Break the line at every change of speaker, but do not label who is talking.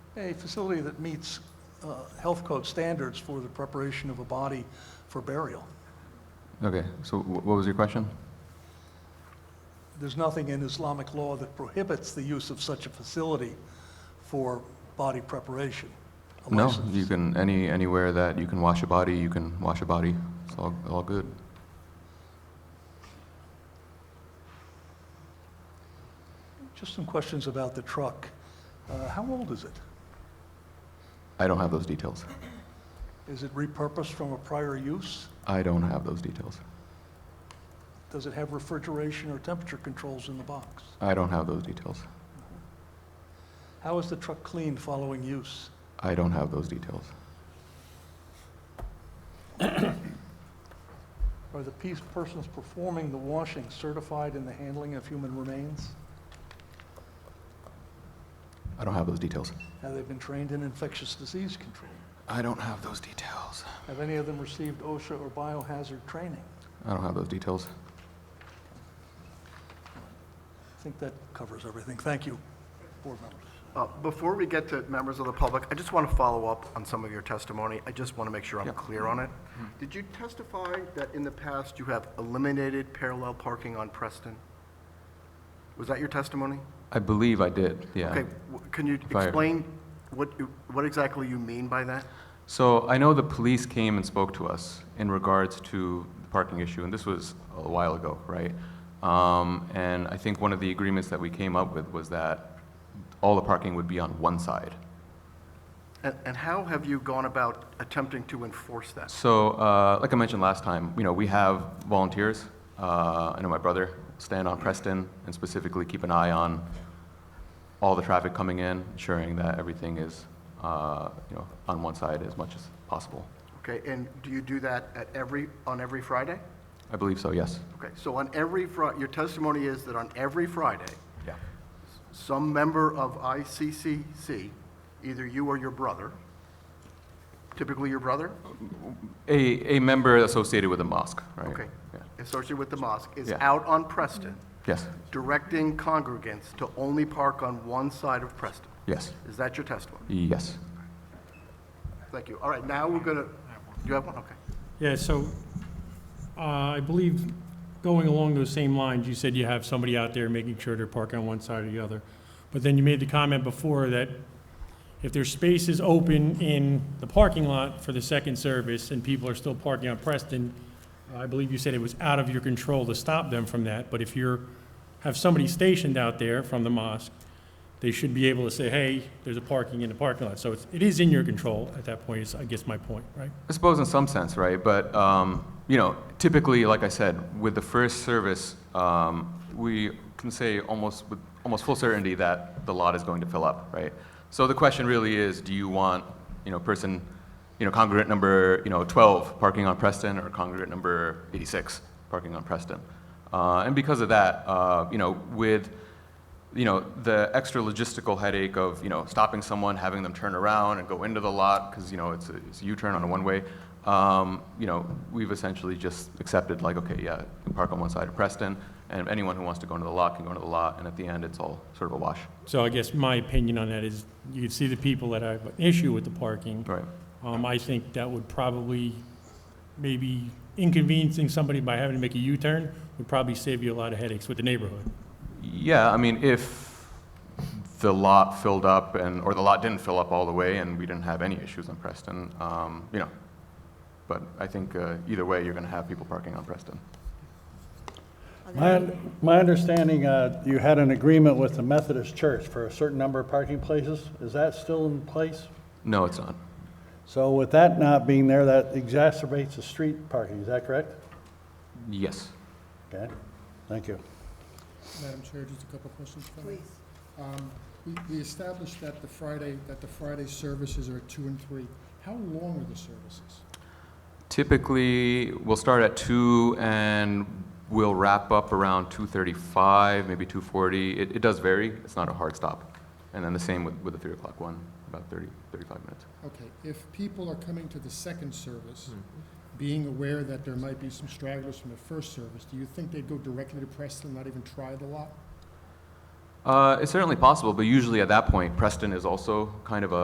A facility that meets uh, health code standards for the preparation of a body for burial.
Okay, so wh- what was your question?
There's nothing in Islamic law that prohibits the use of such a facility for body preparation. A
No,
license.
you can, any, anywhere that you can wash a body, you can wash a body. It's all, all good.
Just some questions about the truck. Uh, How old is it?
I don't have those details.
Is it repurposed from a prior use?
I don't have those details.
Does it have refrigeration or temperature controls in the box?
I don't have those details.
How is the truck cleaned following use?
I don't have those details.
Are the piece persons performing the washing certified in the handling of human remains?
I don't have those details.
Have they been trained in infectious disease control?
I don't have those details.
Have any of them received OSHA or biohazard training?
I don't have those details.
I think that covers everything. Thank you, board members.
Uh, Before we get to members of the public, I just want to follow up on some of your testimony. I just want to make sure I'm clear on it. Did you testify that in the past you have eliminated parallel parking on Preston? Was that your testimony?
I believe I did, yeah.
Okay, w- can you
I-
explain what, you- what exactly you mean by that?
So I know the police came and spoke to us in regards to the parking issue, and this was a while ago, right? Um, and I think one of the agreements that we came up with was that all the parking would be on one side.
And and how have you gone about attempting to enforce that?
So, uh, like I mentioned last time, you know, we have volunteers. Uh, I know my brother, stand on Preston, and specifically keep an eye on all the traffic coming in, ensuring that everything is, uh, you know, on one side as much as possible.
Okay, and do you do that at every, on every Friday?
I believe so, yes.
Okay, so on every Fri, your testimony is that on every Friday,
Yeah.
some member of ICCC, either you or your brother, typically your brother,
A, a member associated with a mosque, right?
okay,
Yeah.
associated with the mosque, is
Yeah.
out on Preston
Yes,
directing congregants to only park on one side of Preston.
yes,
Is that your testimony?
yes.
Thank you. All right, now we're going to, you have one, okay.
Yeah, so, uh, I believe, going along those same lines, you said you have somebody out there making sure they're parking on one side or the other. But then you made the comment before that if there's spaces open in the parking lot for the second service and people are still parking on Preston, I believe you said it was out of your control to stop them from that, but if you're, have somebody stationed out there from the mosque, they should be able to say, hey, there's a parking in the parking lot. So it's, it is in your control at that point, is, I guess, my point, right?
I suppose in some sense, right? But, um, you know, typically, like I said, with the first service, um, we can say almost with almost full certainty that the lot is going to fill up, right? So the question really is, do you want, you know, person, you know, congregant number, you know, 12 parking on Preston or congregant number 86 parking on Preston? Uh, and because of that, uh, you know, with you know, the extra logistical headache of, you know, stopping someone, having them turn around and go into the lot, because, you know, it's a, it's a U-turn on a one-way, um, you know, we've essentially just accepted, like, okay, yeah, you can park on one side of Preston, and anyone who wants to go into the lot can go into the lot, and at the end, it's all sort of a wash.
So I guess my opinion on that is, you could see the people that have an issue with the parking.
Right.
Um, I think that would probably, maybe inconveniencing somebody by having to make a U-turn would probably save you a lot of headaches with the neighborhood.
Yeah, I mean, if the lot filled up and, or the lot didn't fill up all the way and we didn't have any issues on Preston, um, you know, but I think, uh, either way, you're gonna have people parking on Preston.
My, my understanding, uh, you had an agreement with the Methodist Church for a certain number of parking places. Is that still in place?
No, it's not.
So with that not being there, that exacerbates the street parking, is that correct?
Yes.
Okay, thank you.
Madam Chair, just a couple of questions. Please. We established that the Friday, that the Friday services are two and three. How long are the services?
Typically, we'll start at two and we'll wrap up around two thirty-five, maybe two forty. It, it does vary. It's not a hard stop. And then the same with, with the three o'clock one, about 30, 35 minutes.
Okay, if people are coming to the second service, being aware that there might be some stragglers from the first service, do you think they'd go directly to Preston, not even try the lot?
Uh, it's certainly possible, but usually at that point, Preston is also kind of a